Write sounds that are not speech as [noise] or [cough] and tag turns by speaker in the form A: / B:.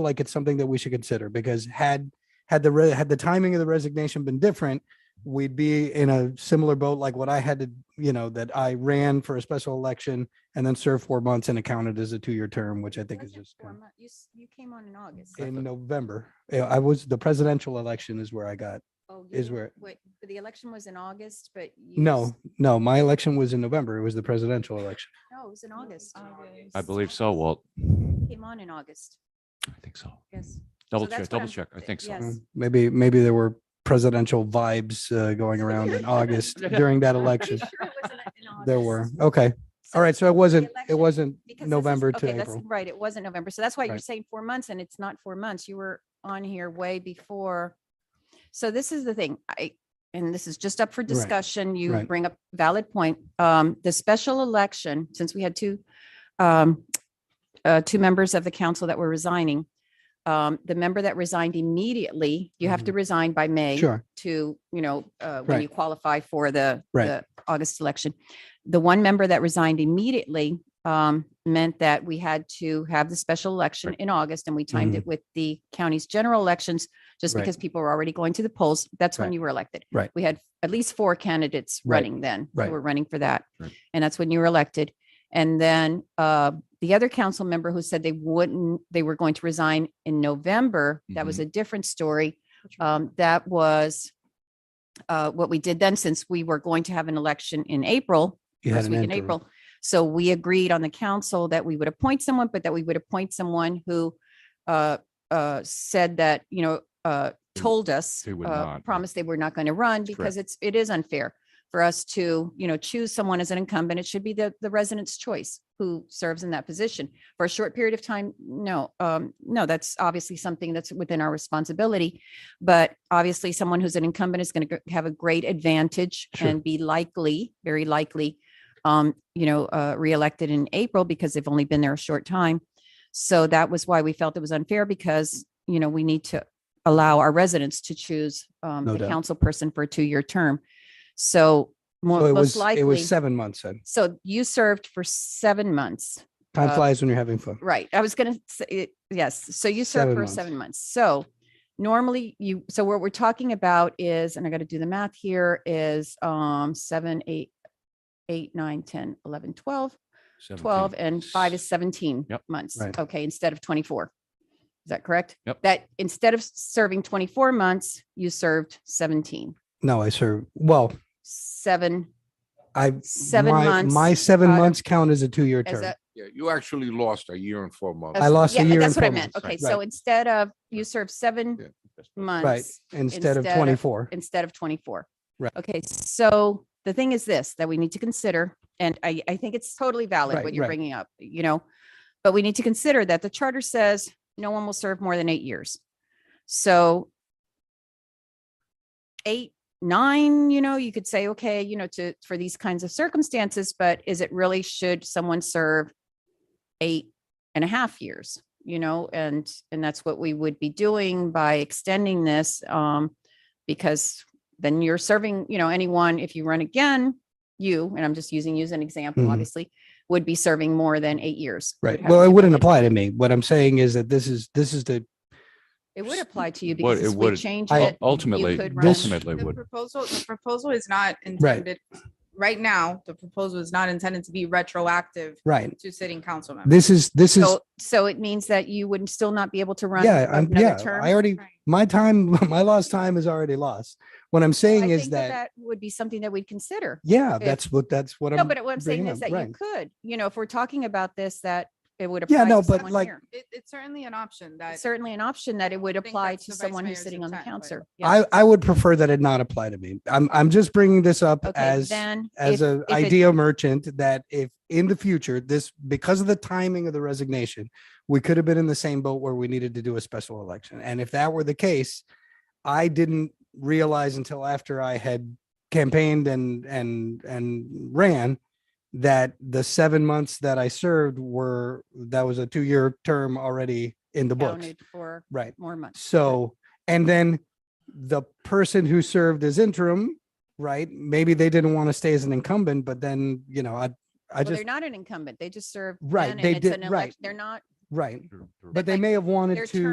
A: like it's something that we should consider because had had the re- had the timing of the resignation been different, we'd be in a similar boat like what I had to, you know, that I ran for a special election and then served four months and accounted as a two-year term, which I think is
B: Wasn't
A: just
B: four month- You, s- you came on in August.
A: in November. Yeah, I was the presidential election is where I got.
B: Oh,
A: is
B: you-
A: where-
B: Wait, but the election was in August, but. you s-
A: No, no, my election was in November. It was the presidential election.
B: No, it was in August.
C: I believe so, Walt. I
B: Came on in August,
C: think so.
B: yes.
C: Double
B: that's
C: check,
B: what
C: double
B: I'm-
C: check. I think so.
B: yes.
A: Mm, Maybe, maybe there were presidential vibes uh, going around
B: [laughs]
A: in August during that
B: I'm pretty
A: election.
B: [laughs] sure it was in- in
A: There
B: August.
A: were. Okay.
B: So
A: All right. So it
B: the
A: wasn't, it
B: election-
A: wasn't
B: because this is-
A: November to
B: okay, that's-
A: April.
B: Right, it wasn't November. So that's why you're
A: Right.
B: saying four months and it's not four months. You were on here way before. So this is the thing, I, and this is just up for discussion. You
A: right.
B: bring up valid point. Um, the special election, since we had two, um, uh, two members of the council that were resigning. Um, the member that resigned immediately, you
A: Mm-hmm.
B: have to resign by May
A: Sure.
B: to, you know, uh, when
A: Right.
B: you qualify for the,
A: Right.
B: the August election. The one member that resigned immediately um, meant that we had to have the special election in August and we timed
A: Mhm.
B: it with the county's general elections just
A: Right.
B: because people were already going to the polls. That's when
A: Right.
B: you were elected.
A: Right.
B: We had at least four candidates
A: Right.
B: running then. who
A: Right.
B: Were running for that.
C: Right.
B: And that's when you were elected. And then uh, the other council member who said they wouldn't, they were going to resign in November, that was a different story. Um, that was uh, what we did then, since we were going to have an election in April,
A: You had
B: first
A: an
B: week in
A: interim.
B: April. So we agreed on the council that we would appoint someone, but that we would appoint someone who uh, uh, said that, you know, uh,
C: Who-
B: told us,
C: who would
B: uh,
C: not, yeah.
B: promised they were not going to run because it's, it is unfair for us to, you know, choose someone as an incumbent. It should be the, the resident's choice who serves in that position for a short period of time. No, um, no, that's obviously something that's within our responsibility. But obviously, someone who's an incumbent is going to have a great advantage
A: Sure.
B: and be likely, very likely, um, you know, uh, reelected in April because they've only been there a short time. So that was why we felt it was unfair because, you know, we need to allow our residents to choose um,
A: No
B: the
A: doubt.
B: council person for a two-year term. So
A: So
B: more,
A: it
B: most
A: was, it
B: likely,
A: was seven months then.
B: so you served for seven months.
A: Time
B: Uh,
A: flies when you're having fun.
B: Right. I was gonna say, it- yes, so you served
A: Seven
B: for
A: months.
B: seven months. So normally you, so what we're talking about is, and I gotta do the math here, is um seven, eight, eight, nine, ten, eleven, twelve, twelve, and five is seventeen
C: Yep.
B: months.
A: Right.
B: Okay, instead of twenty-four. Is that correct?
C: Yep.
B: That instead of serving twenty-four months, you served seventeen,
A: No, I served, well,
B: seven,
A: I,
B: seven
A: my,
B: months.
A: my seven
B: out of-
A: months count as a two-year
B: as
A: term.
B: a-
D: Yeah, you actually lost a year and four months.
A: I lost a
B: yeah,
A: year and
B: That's what I
A: four
B: meant.
A: months.
B: Okay,
A: Right.
B: so instead of you serve seven
D: Yeah.
A: Right.
B: months,
A: Instead of
B: instead of-
A: 24.
B: instead of 24.
A: Right.
B: Okay, so the thing is this, that we need to consider, and I, I think it's totally valid
A: Right,
B: what you're
A: right.
B: bringing up, you know, but we need to consider that the charter says no one will serve more than eight years. So eight, nine, you know, you could say, okay, you know, to, for these kinds of circumstances, but is it really, should someone serve eight and a half years? You know, and, and that's what we would be doing by extending this, um, because then you're serving, you know, anyone, if you run again, you, and I'm just using you as an example,
A: Mhm.
B: obviously, would be serving more than eight years. You would
A: Right.
B: have
A: Well,
B: to
A: it
B: be
A: wouldn't
B: elected.
A: apply to me. What I'm saying is that this is, this is the,
B: It would apply to you because
C: Would- it
B: if we
C: would.
B: change
A: I-
B: it.
C: Ultimately,
B: could
A: run-
C: ultimately
E: The
C: would.
E: proposal, the proposal is not intended, right now, the proposal is not intended to be retroactive
A: right.
E: to sitting council members.
A: This is, this is,
B: Uh, So, so it means that you would still not be able to run.
A: yeah, I'm,
B: another
A: yeah,
B: term?
A: I already, my time, [laughs] my lost time is already lost. What I'm
B: I
A: saying is
B: think
A: that,
B: Would be something that we'd consider.
A: yeah,
B: it-
A: that's what, that's what I'm.
B: No, but what I'm saying
A: bringing
B: is
A: up,
B: that
A: right.
B: you could, you know, if we're talking about this, that it would
A: Yeah,
B: apply
A: no,
B: to
A: but
B: someone
A: like-
B: here.
E: It, it's certainly an option
B: It's
E: that.
B: Certainly an option that it would
E: think
B: apply
E: that's
B: to
E: the vice
B: someone who's
E: mayor's
B: sitting on the
E: intent, but-
B: council. Yeah.
A: I, I would prefer that it not apply to me. I'm, I'm just bringing this up
B: Okay,
A: as,
B: then.
A: as
B: if-
A: a
B: if it-
A: idea merchant that if in the future, this, because of the timing of the resignation, we could have been in the same boat where we needed to do a special election. And if that were the case, I didn't realize until after I had campaigned and, and, and ran that the seven months that I served were, that was a two-year term already in the books.
B: counted For
A: Right.
B: more months.
A: So, and then the person who served as interim, right? Maybe they didn't want to stay as an incumbent, but then, you know, I, I
B: Well,
A: just,
B: they're not an incumbent. They just serve.
A: Right,
B: then,
A: they
B: and it's
A: did-
B: an
A: right.
B: elec- They're not,
A: right.
C: But
A: But they may have wanted
B: their
A: to.